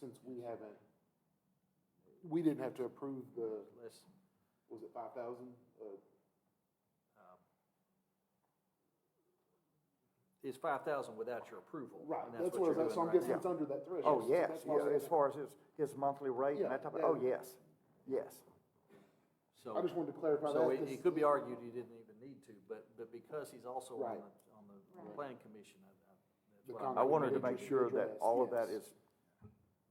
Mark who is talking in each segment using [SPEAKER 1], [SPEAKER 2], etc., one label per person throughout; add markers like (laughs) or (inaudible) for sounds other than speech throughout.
[SPEAKER 1] since we haven't, we didn't have to approve the,
[SPEAKER 2] Let's,
[SPEAKER 1] was it five thousand?
[SPEAKER 2] um, it's five thousand without your approval.
[SPEAKER 1] Right,
[SPEAKER 2] and
[SPEAKER 1] that's what I
[SPEAKER 2] you're
[SPEAKER 1] was, so I'm
[SPEAKER 2] doing right
[SPEAKER 1] guessing
[SPEAKER 2] now.
[SPEAKER 1] it's under that threshold.
[SPEAKER 3] Oh, yes,
[SPEAKER 1] That's why I was
[SPEAKER 3] yeah, as
[SPEAKER 1] asking.
[SPEAKER 3] far as his, his monthly rate
[SPEAKER 1] Yeah,
[SPEAKER 3] and that type of, oh,
[SPEAKER 1] yeah.
[SPEAKER 3] yes, yes.
[SPEAKER 1] I just wanted to clarify that.
[SPEAKER 2] So it,
[SPEAKER 1] this-
[SPEAKER 2] it could be argued he didn't even need to, but, but because he's also
[SPEAKER 1] Right.
[SPEAKER 2] on the, on the
[SPEAKER 4] Right.
[SPEAKER 2] planning commission, I, I,
[SPEAKER 1] The
[SPEAKER 2] that's what I'm.
[SPEAKER 3] I wanted to
[SPEAKER 1] Individual-
[SPEAKER 3] make sure that
[SPEAKER 1] individualized,
[SPEAKER 3] all of that
[SPEAKER 1] yes.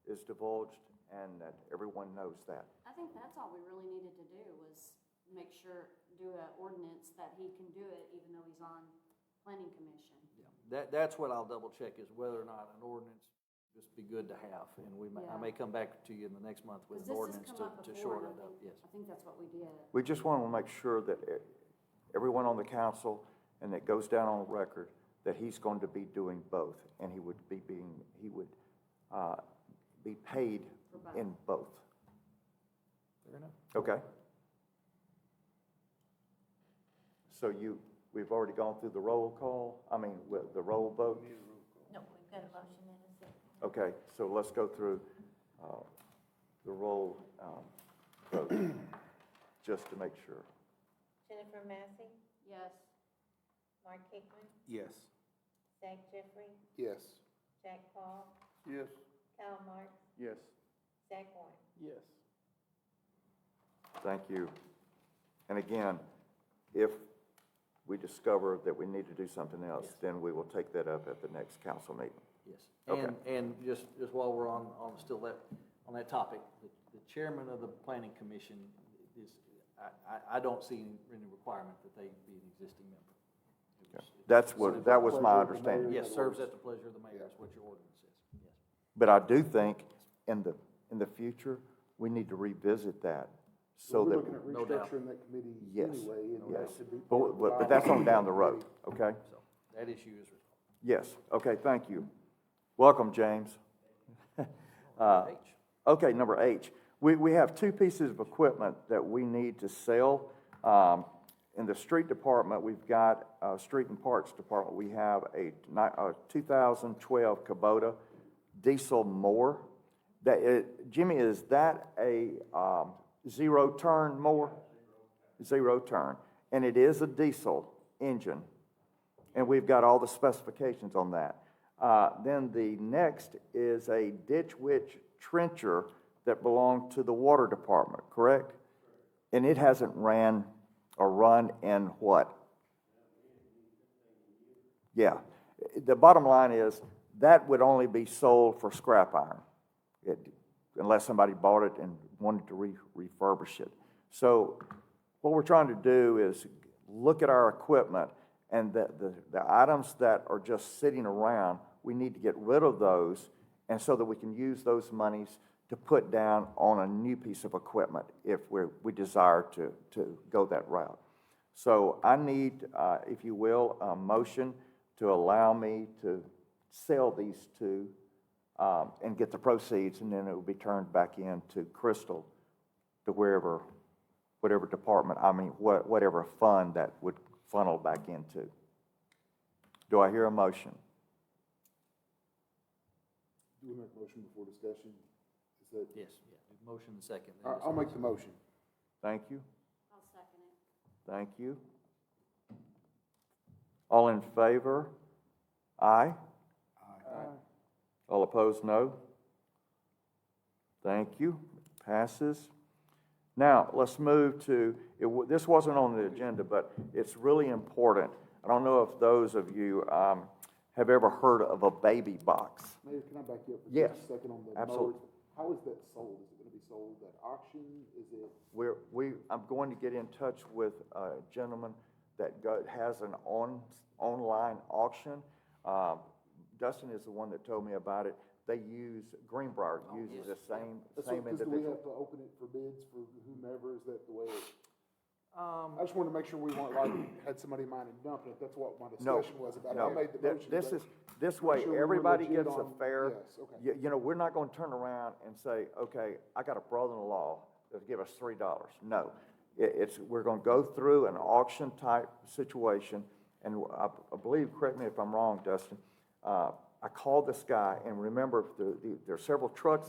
[SPEAKER 3] is, is divulged and that everyone knows that.
[SPEAKER 4] I think that's all we really needed to do was make sure, do an ordinance that he can do it even though he's on planning commission.
[SPEAKER 2] Yeah, That, that's what I'll double check is whether or not an ordinance would just be good to have, and we may, I may
[SPEAKER 4] Yeah.
[SPEAKER 2] come back to you in the next month with
[SPEAKER 4] Because
[SPEAKER 2] an
[SPEAKER 4] this
[SPEAKER 2] ordinance
[SPEAKER 4] has come up
[SPEAKER 2] to, to
[SPEAKER 4] before
[SPEAKER 2] shore
[SPEAKER 4] and
[SPEAKER 2] it
[SPEAKER 4] I
[SPEAKER 2] up,
[SPEAKER 4] think,
[SPEAKER 2] yes.
[SPEAKER 4] I think that's what we did.
[SPEAKER 3] We just want to make sure that e- everyone on the council and that goes down on record that he's going to be doing both and he would be being, he would uh, be paid in both.
[SPEAKER 2] Fair enough.
[SPEAKER 3] Okay. So you, we've already gone through the roll call, I mean, with the roll vote?
[SPEAKER 5] No, we've got a motion and a second.
[SPEAKER 3] Okay, so let's go through uh, the roll um, vote, just to make sure.
[SPEAKER 5] Jennifer Massey,
[SPEAKER 4] Yes,
[SPEAKER 5] Mark Hickman,
[SPEAKER 6] Yes.
[SPEAKER 5] Zach Jeffrey,
[SPEAKER 1] Yes.
[SPEAKER 5] Jack Paul,
[SPEAKER 6] Yes.
[SPEAKER 5] Kyle Mark,
[SPEAKER 6] Yes.
[SPEAKER 5] Zach Warren.
[SPEAKER 6] Yes.
[SPEAKER 3] Thank you. And again, if we discover that we need to do something else, then we will take that up at the next council meeting.
[SPEAKER 2] Yes,
[SPEAKER 3] Okay.
[SPEAKER 2] and, and just, just while we're on, on still that, on that topic, the the chairman of the planning commission is, I, I, I don't see any- any requirement that they be an existing member. It was-
[SPEAKER 3] That's what, that was my understanding.
[SPEAKER 2] Yes, serves at the pleasure of the mayor is what your ordinance says, yes.
[SPEAKER 3] But I do think in the, in the future, we need to revisit that so
[SPEAKER 1] We're
[SPEAKER 3] that.
[SPEAKER 1] looking at
[SPEAKER 2] No doubt.
[SPEAKER 1] restructuring that committee
[SPEAKER 3] Yes,
[SPEAKER 1] anyway, and that
[SPEAKER 3] yes.
[SPEAKER 1] should be. part
[SPEAKER 3] But,
[SPEAKER 1] of
[SPEAKER 3] but
[SPEAKER 1] our-
[SPEAKER 3] but that's on down the road, okay?
[SPEAKER 2] So that issue is resolved.
[SPEAKER 3] Yes, okay, thank you. Welcome, James. (laughs) Uh,
[SPEAKER 2] H.
[SPEAKER 3] Okay, number H, we, we have two pieces of equipment that we need to sell. Um, In the street department, we've got, uh, street and parks department, we have a ni- a 2012 Kubota diesel mower. That, it- Jimmy, is that a um, zero turn mower? Zero turn, and it is a diesel engine. And we've got all the specifications on that. Uh, then the next is a ditch witch trencher that belonged to the water department, correct? And it hasn't ran or run in what? Yeah. The bottom line is that would only be sold for scrap iron it- unless somebody bought it and wanted to re- refurbish it. So what we're trying to do is look at our equipment and the, the, the items that are just sitting around, we need to get rid of those and so that we can use those monies to put down on a new piece of equipment if we're, we desire to, to go that route. So I need, uh, if you will, a motion to allow me to sell these two um, and get the proceeds, and then it will be turned back into Crystal to wherever, whatever department, I mean, wha- whatever fund that would funnel back into. Do I hear a motion?
[SPEAKER 1] Do we make a motion before discussion? Is that,
[SPEAKER 2] Yes, yeah, motion and second.
[SPEAKER 1] All right, I'll make the motion.
[SPEAKER 3] Thank you,
[SPEAKER 4] I'll second it.
[SPEAKER 3] thank you. All in favor? Aye? Aye. All opposed, no? Thank you, passes. Now, let's move to, it wa- this wasn't on the agenda, but it's really important. I don't know if those of you um, have ever heard of a baby box.
[SPEAKER 1] Mayor, can I back you up for
[SPEAKER 3] Yes,
[SPEAKER 1] just a second on the mower?
[SPEAKER 3] absolutely.
[SPEAKER 1] How is that sold? Is it gonna be sold at auction? Is it?
[SPEAKER 3] We're, we, I'm going to get in touch with a gentleman that go- has an on, online auction. Um, Dustin is the one that told me about it. They use, Greenbrier uses the same,
[SPEAKER 1] that's what-
[SPEAKER 3] same
[SPEAKER 1] 'cause Do we
[SPEAKER 3] individual.
[SPEAKER 1] have to open it for bids for whomever? Is that the way? it-
[SPEAKER 2] Um,
[SPEAKER 1] I just wanted to make sure we weren't like, had somebody in mind and dumping it. That's what my
[SPEAKER 3] No,
[SPEAKER 1] discussion was about. I
[SPEAKER 3] no.
[SPEAKER 1] made the
[SPEAKER 3] Th-
[SPEAKER 1] motion.
[SPEAKER 3] This
[SPEAKER 1] but-
[SPEAKER 3] is, this way,
[SPEAKER 1] sure we were
[SPEAKER 3] everybody
[SPEAKER 1] legit
[SPEAKER 3] gets a
[SPEAKER 1] on-
[SPEAKER 3] fair.
[SPEAKER 1] yes, okay.
[SPEAKER 3] You, you know, we're not gonna turn around and say, okay, I got a brother-in-law that'll give us three dollars. No. It, it's, we're gonna go through an auction-type situation, and I, I believe, correct me if I'm wrong, Dustin, uh, I called this guy, and remember, the, the, there are several trucks